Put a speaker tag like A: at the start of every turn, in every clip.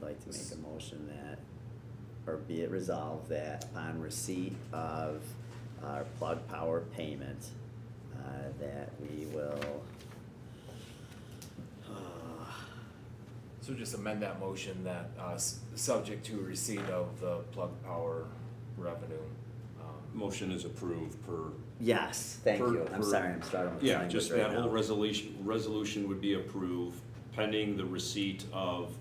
A: like to make a motion that, or be it resolved that upon receipt of our Plug Power payment, uh, that we will, uh,
B: So just amend that motion that, uh, s- subject to receipt of the plug power revenue. um,
C: Motion is approved per,
A: yes, thank
C: Per-
A: you, I'm
C: per-
A: sorry, I'm starting with the
C: yeah,
A: language
C: just
A: right
C: that whole
A: now.
C: resolution, resolution would be approved pending the receipt of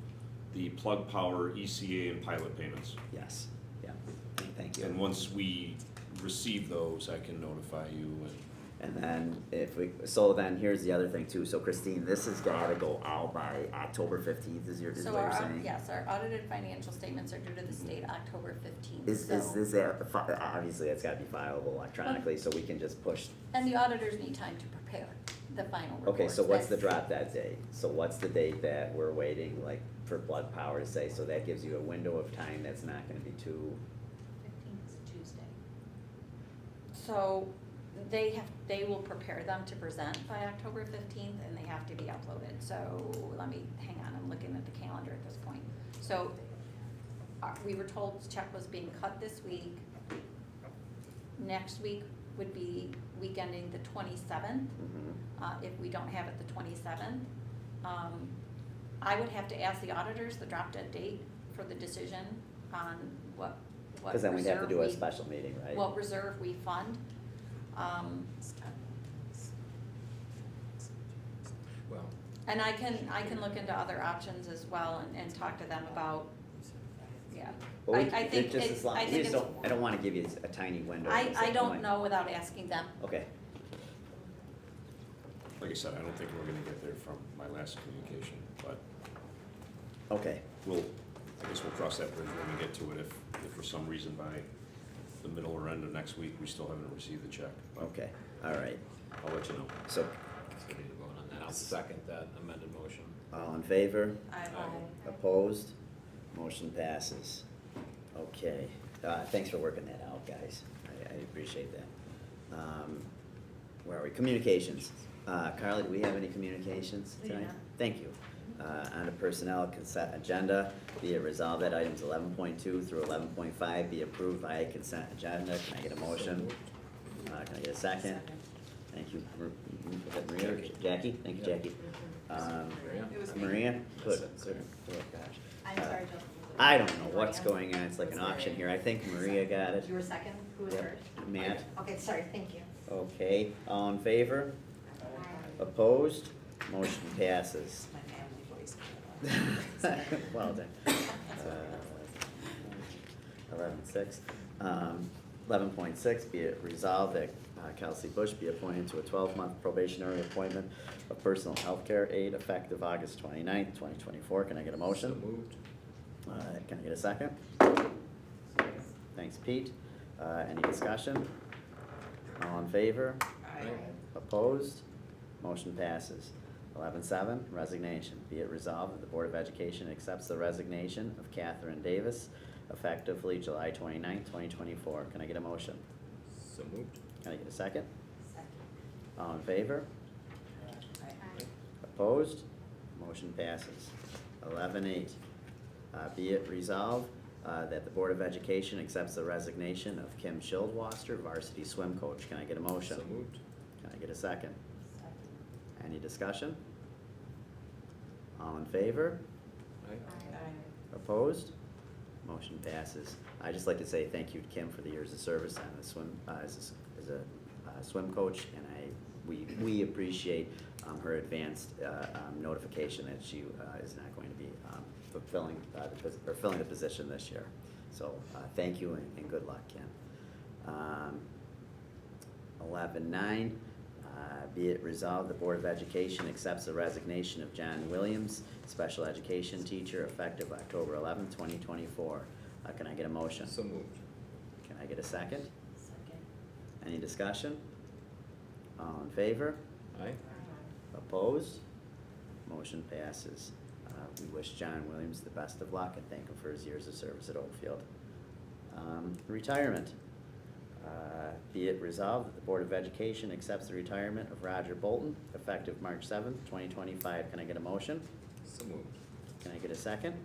C: the Plug Power ECA and pilot payments.
A: Yes, yeah, thank you.
C: And once we receive those, I can notify you and.
A: And then if we, so then here's the other thing too, so Christine, this has gotta go out by October fifteenth is your, is
D: So
A: what
D: our,
A: you're saying?
D: au- yes, our audited financial statements are due to the state October fifteenth,
A: Is, is,
D: so.
A: is that, fi- obviously that's gotta be fileable electronically, so we can just push,
D: And the auditors need time to prepare the final report.
A: okay, so what's the drop that day? So what's the date that we're waiting, like, for Blood Power to say, so that gives you a window of time that's not gonna be too,
E: Fifteenth is Tuesday.
D: So they have, they will prepare them to present by October fifteenth and they have to be uploaded, so let me, hang on, I'm looking at the calendar at this point. So, uh, we were told the check was being cut this week. Next week would be week ending the twenty-seventh.
A: mhm,
D: uh, if we don't have it the twenty-seventh. Um, I would have to ask the auditors the drop dead date for the decision on what, what
A: cause then we'd have to
D: reserve
A: do a
D: we-
A: special meeting, right?
D: What reserve we fund. Um,
B: Well,
D: and I can, I can look into other options as well and, and talk to them about, yeah.
A: Well, we-
D: I- I
A: it
D: think
A: just
D: it's-
A: as long-
D: I
A: we
D: think
A: just
D: it's-
A: don't- I don't wanna give you a tiny window.
D: I,
A: at
D: I
A: some
D: don't
A: point.
D: know without asking them.
A: Okay,
C: Like I said, I don't think we're gonna get there from my last communication, but
A: okay,
C: we'll, I guess we'll cross that bridge when we get to it. If, if for some reason by the middle or end of next week, we still haven't received the check.
A: okay, alright,
C: I'll let you know.
A: so,
B: uh,
F: So we need to vote on that. I'll
B: Yes.
F: second that amended motion.
A: all in favor?
D: I will-
F: Aye.
A: Opposed? Motion passes. Okay, uh, thanks for working that out, guys. I, I appreciate that. Um, where are we? Communications. Uh, Carly, do we have any communications
E: We do
A: tonight?
E: not.
A: Thank you. Uh, on the personnel consent agenda, be it resolved that items eleven point two through eleven point five be approved by consent agenda. Can I get a motion? Uh, can I get a second? Thank you, Mar- was that Maria, Jackie? Thank you, Jackie. Um,
B: Maria?
E: Mm-hmm. It was me.
A: Maria, good,
B: That's it,
A: good,
B: sorry.
A: good catch.
E: I'm
A: Uh,
E: sorry, Jill.
A: I don't know what's
E: Maria?
A: going on, it's like an
E: It was
A: auction here,
E: Maria.
A: I think Maria got it.
E: You were second, who was
A: Yep.
E: first?
A: Matt, Oh.
E: Okay, sorry, thank you.
A: okay, all in favor? Opposed? Motion passes.
E: My family voice.
A: Oh. Well done. Uh, Eleven six. um, Eleven point six, be it resolved that uh, Kelsey Bush be appointed to a twelve-month probationary appointment of personal healthcare aide effective August twenty-ninth, twenty twenty-four. Can I get a
B: so
A: motion?
B: moved.
A: Uh, Can I get a second? Thanks, Pete. Uh, Any discussion? All in favor? Opposed? Motion passes. Eleven seven, resignation. Be it resolved that the Board of Education accepts the resignation of Catherine Davis effectively July twenty-ninth, twenty twenty-four. Can I get a motion?
B: So moved.
A: Can I get a second?
E: Second.
A: All in favor?
E: Aye.
A: Opposed? Motion passes. Eleven eight, uh, be it resolved, uh, that the Board of Education accepts the resignation of Kim Schildwasser, varsity swim coach. Can I get a motion?
B: So moved.
A: Can I get a second? Any discussion? All in favor?
B: Aye.
A: Opposed? Motion passes. I'd just like to say thank you to Kim for the years of service on the swim, uh, as a, s- as a uh, swim coach, and I, we, we appreciate um, her advanced uh, um, notification that she uh, is not going to be um, fulfilling, uh, the pos- or filling the position this year. So uh, thank you and and good luck, Kim. Um, Eleven nine, uh, be it resolved, the Board of Education accepts the resignation of John Williams, special education teacher, effective October eleventh, twenty twenty-four. Uh, can I get a motion?
B: So moved.
A: Can I get a second?
E: Second.
A: Any discussion? All in favor?
B: Aye.
A: Opposed? Motion passes. Uh, we wish John Williams the best of luck and thank him for his years of service at Oakfield. Um, retirement. Uh, be it resolved that the Board of Education accepts the retirement of Roger Bolton effective March seventh, twenty twenty-five. Can I get a motion?
B: So moved.
A: Can I get a second?